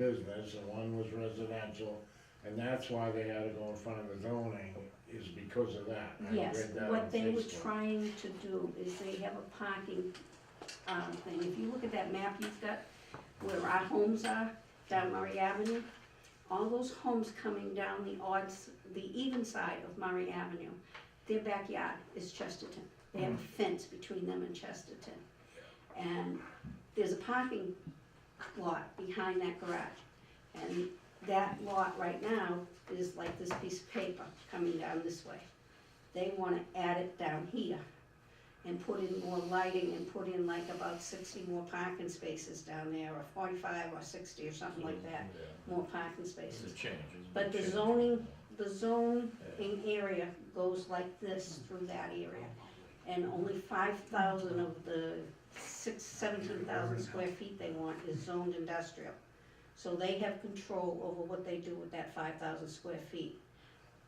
business and one was residential, and that's why they had to go in front of the zoning, is because of that. I Yes, read that on what they were Facebook. trying to do is they have a parking, um, thing, if you look at that map you've got, where our homes are, down Murray Avenue, all those homes coming down the odds, the even side of Murray Avenue, their backyard is Chesterton, they have a Hmm. fence between them and Chesterton. And there's a parking lot behind that garage, and that lot right now is like this piece of paper coming down this way they wanna add it down here and put in more lighting and put in like about sixty more parking spaces down there, or forty-five or sixty or something like that, Yeah. more parking It's a spaces. change. it's a But the change. zoning, the zoning area goes like this through that area. And only five thousand of the six, seventeen thousand square feet they want is zoned industrial. So they have control over what they do with that five thousand square feet.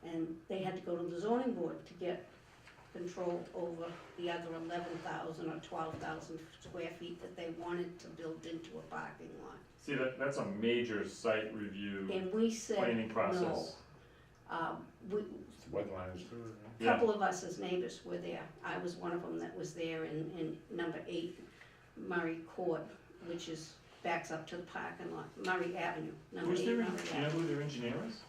And they had to go to the zoning board to get control over the other eleven thousand or twelve thousand square feet that they wanted to build into a parking lot. See, that, that's a major site review And we said, planning no. process. Um, we, Wetlands too, right? Yeah. couple of us as neighbors were there. I was one of them that was there in, in number eight Murray Court, which is, backs up to the parking lot, Murray Avenue, number Who's eight their, Murray en- do you know Avenue. who their engineer is?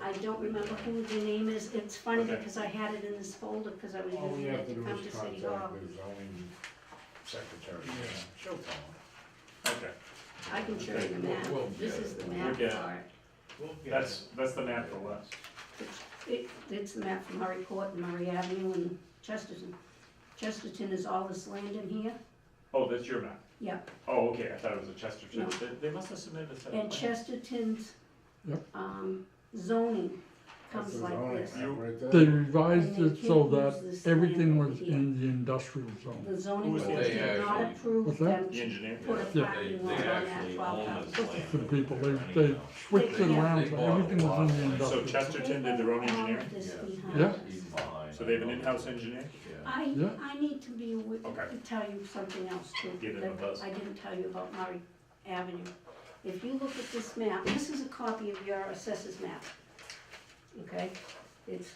I don't remember who the name is. It's funny Okay. because I had it in this folder because I was All we using have it to to do come is to City Hall. contact the zoning secretary. Yeah. She'll tell Okay, I can show you the We'll- map. we'll This get is it. the We'll map get it. for that's, that's the map for West. it. It, it's the map for Murray Court and Murray Avenue and Chesterton. Chesterton is all this land in here. Oh, that's your map? Yep. Oh, okay, I thought it was a Chesterton. No. They, they must have submitted a set And of plans. Chesterton's, Yep. um, zoning That's comes the like zoning this. map right there. They revised And they it so can't use that this everything land over was here. in the industrial zone. The zoning Who's board they did not actually- approve What's that? them The to engineer? put a Yeah, They, parking they lot on that actually twelve own this thousand. land. For the people, they, They're they running now. switched it They- around, they so bought a everything lot was of in the So land. industrial. zone. Chesterton did their own engineering? This Yeah. behind Yeah. us. He's behind. So they have an in-house engineer? Yeah. I, Yeah. I need to be, awa- Okay. to tell you something else too. Give them a that buzz. I didn't tell you about Murray Avenue. If you look at this map, this is a copy of your assessors map. Okay, it's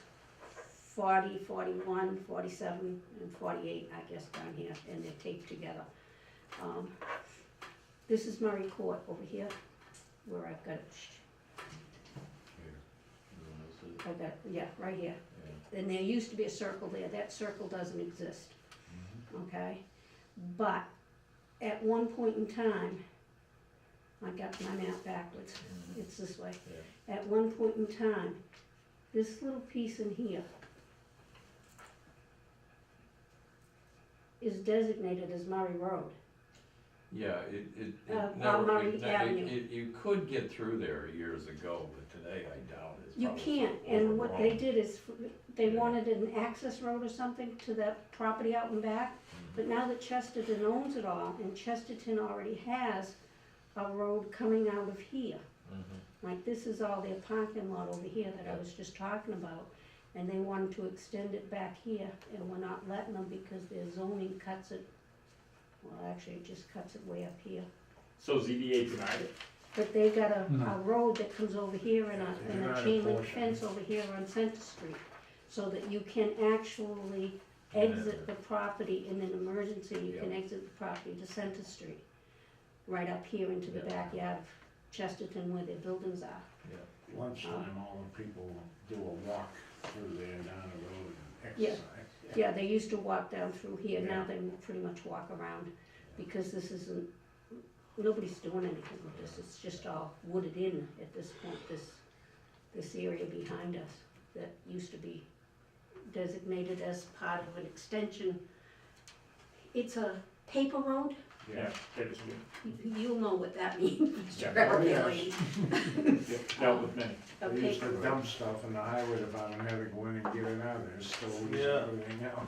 40, 41, 47, and forty-eight, I guess, down here, and they're taped together. Um, This is Murray Court over here, where I've got it, I got, it, yeah, right here. And there used to be a circle there, that circle doesn't exist, okay? But at one point in time, I got my map backwards, it's this way. At one point in time, this little piece in here is designated as Murray Road. Yeah, it, it, Uh, it never, Montgomery it, Avenue. it, it, you could get through there years ago, but today I doubt it. You can't, and what they did is, they wanted an access road or something to that property out and back, but now that Chesterton owns it all, and Chesterton already has a road coming out of here. Like, this is all their parking lot over here that I was just talking about, and they wanted to extend it back here, and we're not letting them because their zoning cuts it, well, actually, it just cuts it way up here. So ZBA denied it? But they got a, No. a road that comes over here and a, Yeah, and you're a not chain link enforcing. fence over here on Center Street. So that you can actually Yeah. exit the property in an emergency, you can Yeah. exit the property to Center Street. Right up here into the Yeah. backyard of Chesterton where their buildings are. Lunchtime, all the people do a walk through there down the road and Yeah. exercise. Yeah, they used to walk down through here, now Yeah. they pretty much walk around, because this isn't, nobody's doing anything with this, it's just all wooded in at this point, this, this area behind us that used to be designated as part of an extension. It's a paper road, Yeah, that is good. You- you'll know what that means, Mr. Yeah. Oh, yes. Everglades. Yeah, Dealt with many. A They used paper to road. dump stuff in the highway department, had to go in and get it out of there, so we used Yeah. to put it out.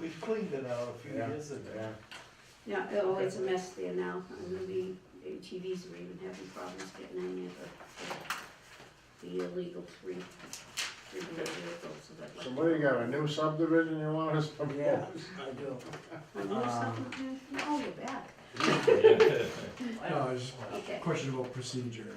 We cleaned it out a few Yeah. years ago. Yeah. Yeah, oh, it's a mess there now, and maybe ATVs are even having problems getting in there, the, the illegal free, free vehicles, so that like. So what do you got, a new subdivision you want us to Yeah, propose? I do. I know something, oh, you're back. Yeah. okay. Question about procedure.